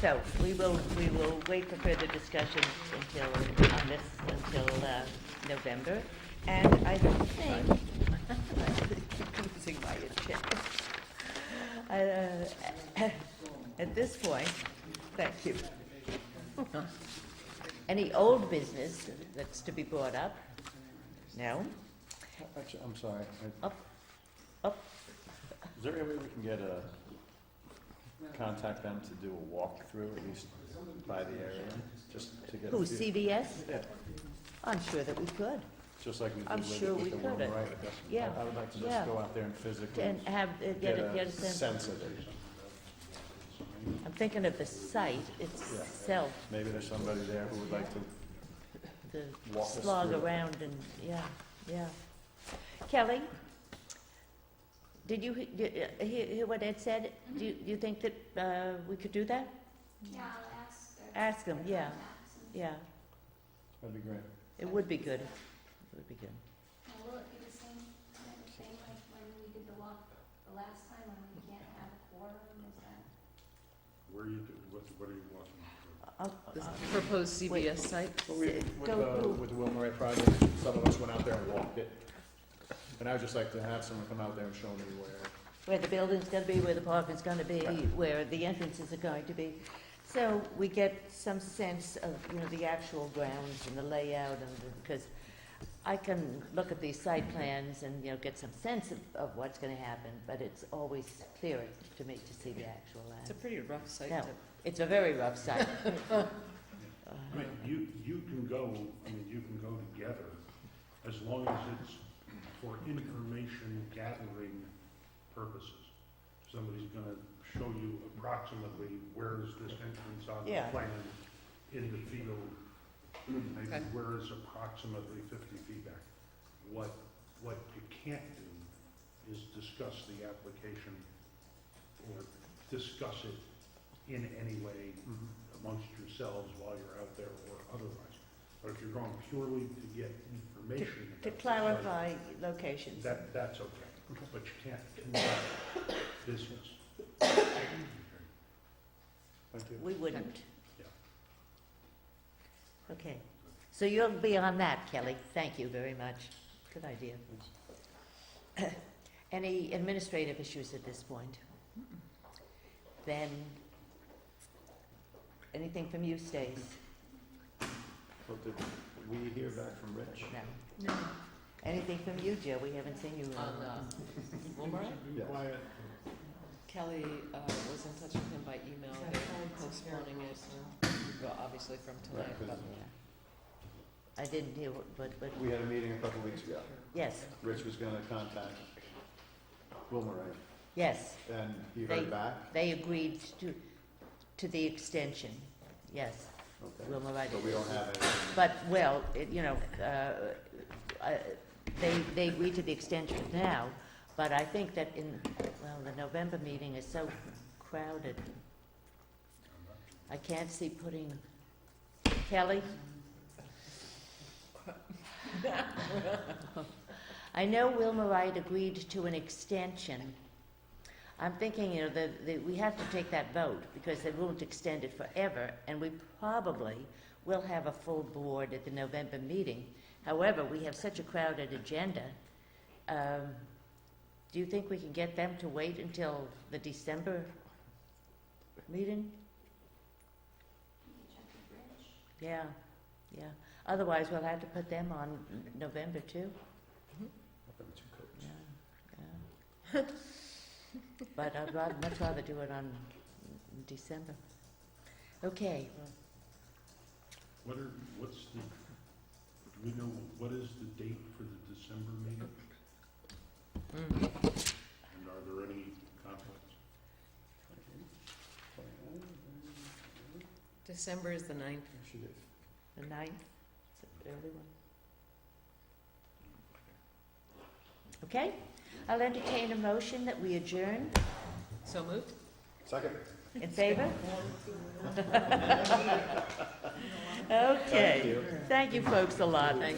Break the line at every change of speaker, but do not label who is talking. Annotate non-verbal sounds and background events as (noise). So we will, we will wait for further discussion until, on this, until uh, November. And I think, (laughs) I'm losing my (laughs) agenda. I, uh, (coughs) At this point, thank you. (laughs) Any old business that's to be brought up? No?
Actually, I'm sorry. I-
Up, up,
Is there any way we can get a, contact them to do a walkthrough, at least by the area, just to get
who,
a feel?
CVS?
Yeah,
I'm sure that we could.
just like we
I'm
did with
sure
the-
we
with the
could
one,
have.
right?
Yeah,
I would like to
yeah.
just go out there and physically
And have, uh,
get
get a, get a
a
sense.
sense of it.
I'm thinking of the site itself,
Maybe there's somebody there who would like to,
the
Walk us
slog
through it.
around and, yeah, yeah. Kelly? Did you, he- you, uh, hear, hear what Ed said? Do you, you think that, uh, we could do that?
Yeah, I'll ask her.
Ask him, yeah,
contacts and-
yeah.
that'd be great.
It would be good. It would be good.
Now, will it be the same kind of thing like when we did the walk the last time when we can't have a quorum, is that?
Where are you, do- what, what are you walking through?
I'll-
The
I'll-
proposed CBS site?
Well, we,
S-
with
go who?
the, with the Wilmerite project, some of us went out there and walked it. And I would just like to have someone come out there and show me where,
Where the building's gonna be, where the park is gonna be, where the entrances are going to be. So we get some sense of, you know, the actual grounds and the layout and, the- because I can look at these site plans and, you know, get some sense of, of what's gonna happen, but it's always clearer to me to see the actual
It's a
land.
pretty rough site
No.
to
It's a very rough
(laughs)
site.
I mean, you, you can go, I mean, you can go together as long as it's for information gathering purposes. Somebody's gonna show you approximately where is this entrance on the
Yeah.
plan in the field. Maybe
Okay.
where is approximately fifty feet back. What, what you can't do is discuss the application or discuss it in any way amongst yourselves while you're out there or otherwise. But if you're going purely to get information.
To
about the project,
clarify locations.
That, that's okay, but you can't conduct business.
We wouldn't.
Yeah.
Okay, so you'll be on that, Kelly, thank you very much, good idea. (coughs) Any administrative issues at this point? Then, anything from you, Stace?
But did we hear back from Rich?
No.
No.
Anything from you, Joe, we haven't seen you in a
On,
while.
uh, Wilmore?
Yes.
Kelly, uh, was in touch with him by email, they're postponing it, well, obviously from tonight,
Right, 'cause-
but.
I didn't hear what, but, but,
We had a meeting a couple weeks ago.
yes,
Rich was gonna contact Wilmerite,
yes,
and he
They-
heard back?
they agreed to, to the extension, yes,
Okay.
Wilma Ryder.
But we don't have anything.
But, well, it- you know, uh, I- they, they agreed to the extension now, but I think that in, well, the November meeting is so crowded. I can't see putting, Kelly? I know Wilma Wright agreed to an extension. I'm thinking, you know, that, that we have to take that vote, because they won't extend it forever, and we probably will have a full board at the November meeting. However, we have such a crowded agenda. Um, Do you think we can get them to wait until the December meeting?
You can check the bridge.
Yeah, yeah. Otherwise, we'll have to put them on November too. Yeah, yeah. But I'd rather, much rather do it on December. Okay,
What are, what's the, do we know, what is the date for the December meeting?
Mm.
And are there any conflicts?
December is the ninth.
She did.
the ninth, it's an early one. Okay, I'll entertain a motion that we adjourn.
So moved?
Second.
In favor? (laughs) Okay.
you.
Thank you, folks, a lot.